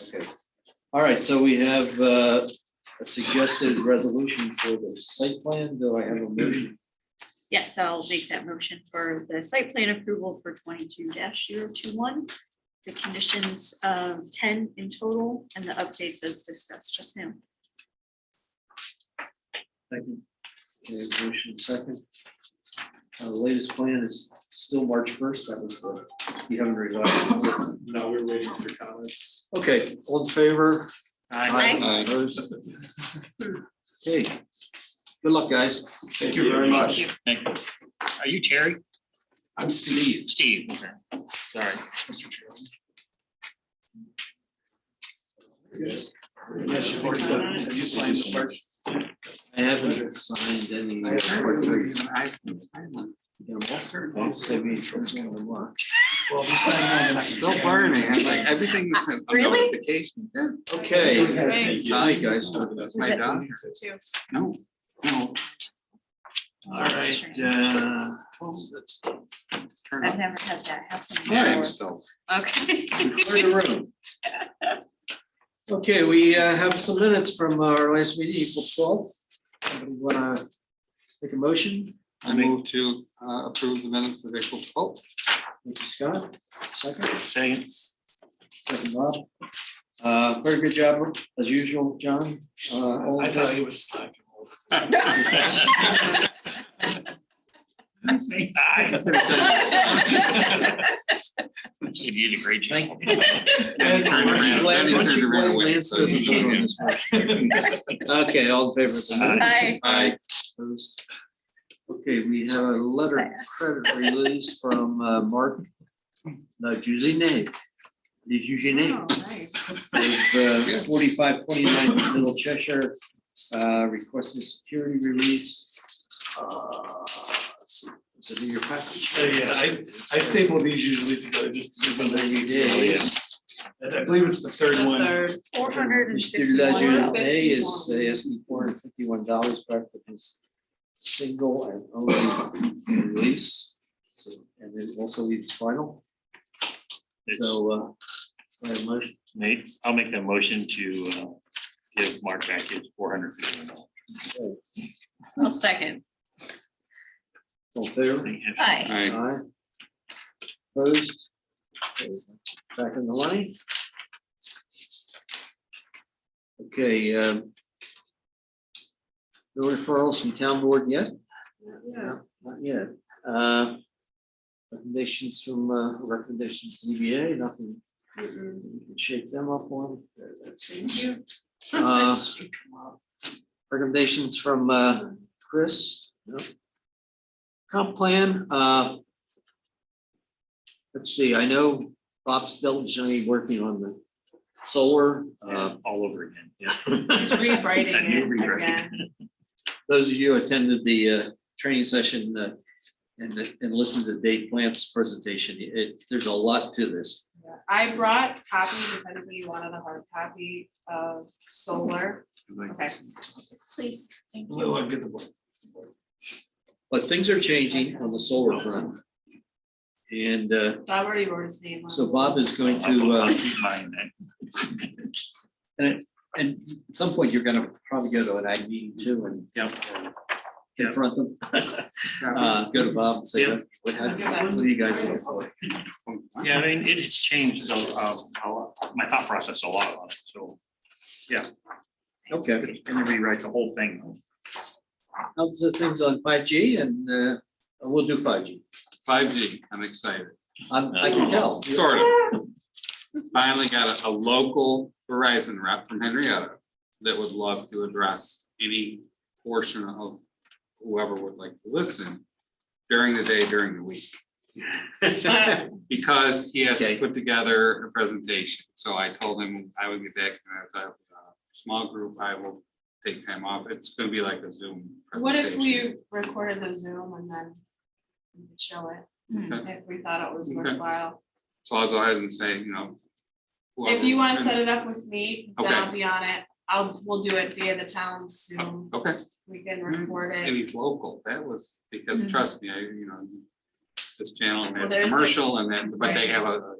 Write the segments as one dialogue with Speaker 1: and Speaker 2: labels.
Speaker 1: Okay, all right, so we have uh, a suggested resolution for the site plan, do I have a motion?
Speaker 2: Yes, I'll make that motion for the site plan approval for twenty-two 21 The conditions of ten in total and the updates as discussed just now.
Speaker 1: Second. Okay, Motion second. Uh, The latest plan is still March first, that was the, you haven't revised. it since.
Speaker 3: No, we're waiting for comments.
Speaker 1: Okay, all in favor?
Speaker 2: Aye.
Speaker 1: Opposed? Okay, good luck, guys.
Speaker 3: Thank you very much.
Speaker 2: Thank
Speaker 4: Thank you. Are you Terry?
Speaker 3: I'm Steve.
Speaker 4: Steve, okay. Sorry, Mr. Chairman.
Speaker 3: Yes, you've already done it. Have you signed the first?
Speaker 1: I haven't signed any.
Speaker 3: Well, we signed one.
Speaker 5: Still burning, I'm like, everything was a
Speaker 2: Really?
Speaker 5: notification, yeah,
Speaker 1: Okay,
Speaker 2: Thanks.
Speaker 5: hi, guys,
Speaker 3: All
Speaker 5: my
Speaker 2: it-
Speaker 5: dog,
Speaker 2: Two.
Speaker 5: no, no.
Speaker 3: right, uh,
Speaker 5: it's turned
Speaker 2: I've
Speaker 5: off.
Speaker 2: never had that
Speaker 5: Yeah,
Speaker 2: happen
Speaker 5: I'm
Speaker 2: before.
Speaker 5: still,
Speaker 2: Okay.
Speaker 1: clear the room. Okay, we uh, have some minutes from our last meeting, April twelfth. Anybody wanna make a motion?
Speaker 5: I move to uh, approve the minutes of April twelfth.
Speaker 1: Thank you, Scott. Second,
Speaker 4: Second.
Speaker 1: second, Bob. Uh, very good job, as usual, John. Uh, all
Speaker 3: I
Speaker 1: in
Speaker 3: thought
Speaker 1: favor?
Speaker 3: he was slacking.
Speaker 4: Say hi. You said you did a great job.
Speaker 5: And he turned around,
Speaker 1: Glad-
Speaker 5: then he
Speaker 1: once
Speaker 5: turned
Speaker 1: you
Speaker 5: around
Speaker 1: glad
Speaker 5: away,
Speaker 1: Lance
Speaker 5: so
Speaker 1: doesn't
Speaker 5: he-
Speaker 1: vote on this motion. Okay, all in favor of the minutes?
Speaker 2: Aye.
Speaker 1: Aye. Opposed? Okay, we have a letter of credit release from uh, Mark, uh, no, Juzinek. Is
Speaker 2: Oh,
Speaker 1: Juzinek
Speaker 2: nice.
Speaker 1: of uh, forty-five twenty-nine Little Cheshire, uh, requesting security release. Uh, Is it in your package?
Speaker 3: Uh, yeah, I staple these usually together just to give them
Speaker 1: You
Speaker 3: easy.
Speaker 1: did.
Speaker 3: And I believe it's the third one.
Speaker 2: Four hundred and
Speaker 1: Your ledger
Speaker 2: fifty-one.
Speaker 1: A is uh, asking four hundred fifty-one dollars for applicant's single and only release. So, and then also leaves final, so, uh, I have a motion,
Speaker 4: Nate, I'll make that motion to uh, give Mark back his four hundred fifty dollars.
Speaker 1: uh,
Speaker 2: I'll second.
Speaker 1: all in favor?
Speaker 2: Aye.
Speaker 5: Aye.
Speaker 1: Aye. Opposed? Okay, Back in the line. Okay, um. No referrals from town board yet?
Speaker 2: Yeah.
Speaker 1: Not yet. Uh, Recommendations from, uh, recommendations ZBA, nothing,
Speaker 2: Mm-mm.
Speaker 1: we can shake them up on. There, that's it.
Speaker 2: Thank you.
Speaker 1: Uh, Recommendations from uh, Chris. no. Comp plan. uh, Let's see, I know Bob's diligently working on the solar. uh,
Speaker 4: All over again, yeah.
Speaker 2: He's rewriting
Speaker 4: A new
Speaker 2: it
Speaker 4: rewrite.
Speaker 2: again.
Speaker 1: Those of you who attended the uh, training session uh, and, and listened to Dave Plant's presentation, it, there's a lot to this.
Speaker 6: Yeah, I brought copies if anybody wanted a hard copy of solar. Okay.
Speaker 2: Please, thank you.
Speaker 3: Well, I'll get the book.
Speaker 1: But things are changing on the solar front. And uh,
Speaker 6: I already wrote his name on.
Speaker 1: so Bob is going to,
Speaker 4: I'll
Speaker 1: uh,
Speaker 4: keep mine then.
Speaker 1: and at some point, you're gonna probably go to an ag meeting too and confront them. Uh, Go to Bob and say,
Speaker 4: Yeah.
Speaker 1: what happened? What do you guys? look for?"
Speaker 4: Yeah, I mean, it has changed, uh, how- my thought process a lot on it, so.
Speaker 1: Okay,
Speaker 4: I'm Gonna rewrite the whole thing.
Speaker 1: how's the things on five G and uh, we'll do five G.
Speaker 5: Five G, I'm excited,
Speaker 1: I can tell.
Speaker 5: sort of. Finally got a, a local Verizon rep from Henrietta that would love to address any portion of whoever would like to listen during the day, during the week. Because he has
Speaker 1: Okay.
Speaker 5: to put together a presentation, so I told him I would be back, and I thought, uh, small group, I will take time off, it's gonna be like a Zoom.
Speaker 6: What if
Speaker 5: presentation.
Speaker 6: we recorded the Zoom and then we could show it
Speaker 2: Hmm.
Speaker 5: Okay.
Speaker 6: if we thought it was
Speaker 5: Okay.
Speaker 6: worthwhile?
Speaker 5: So I'll go ahead and say, you know.
Speaker 6: If
Speaker 5: whoever-
Speaker 6: you want to set it up with me, then
Speaker 5: Okay.
Speaker 6: I'll be on it. I'll, we'll do it via the town's Zoom.
Speaker 5: Okay.
Speaker 6: We can
Speaker 5: Mm-hmm.
Speaker 6: record
Speaker 5: And
Speaker 6: it.
Speaker 5: he's local, that was, because
Speaker 6: Mhm.
Speaker 5: trust me, I, you know, this channel and
Speaker 6: Well,
Speaker 5: it's
Speaker 6: there's like-
Speaker 5: commercial and then, but they have a a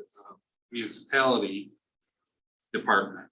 Speaker 5: municipality. department.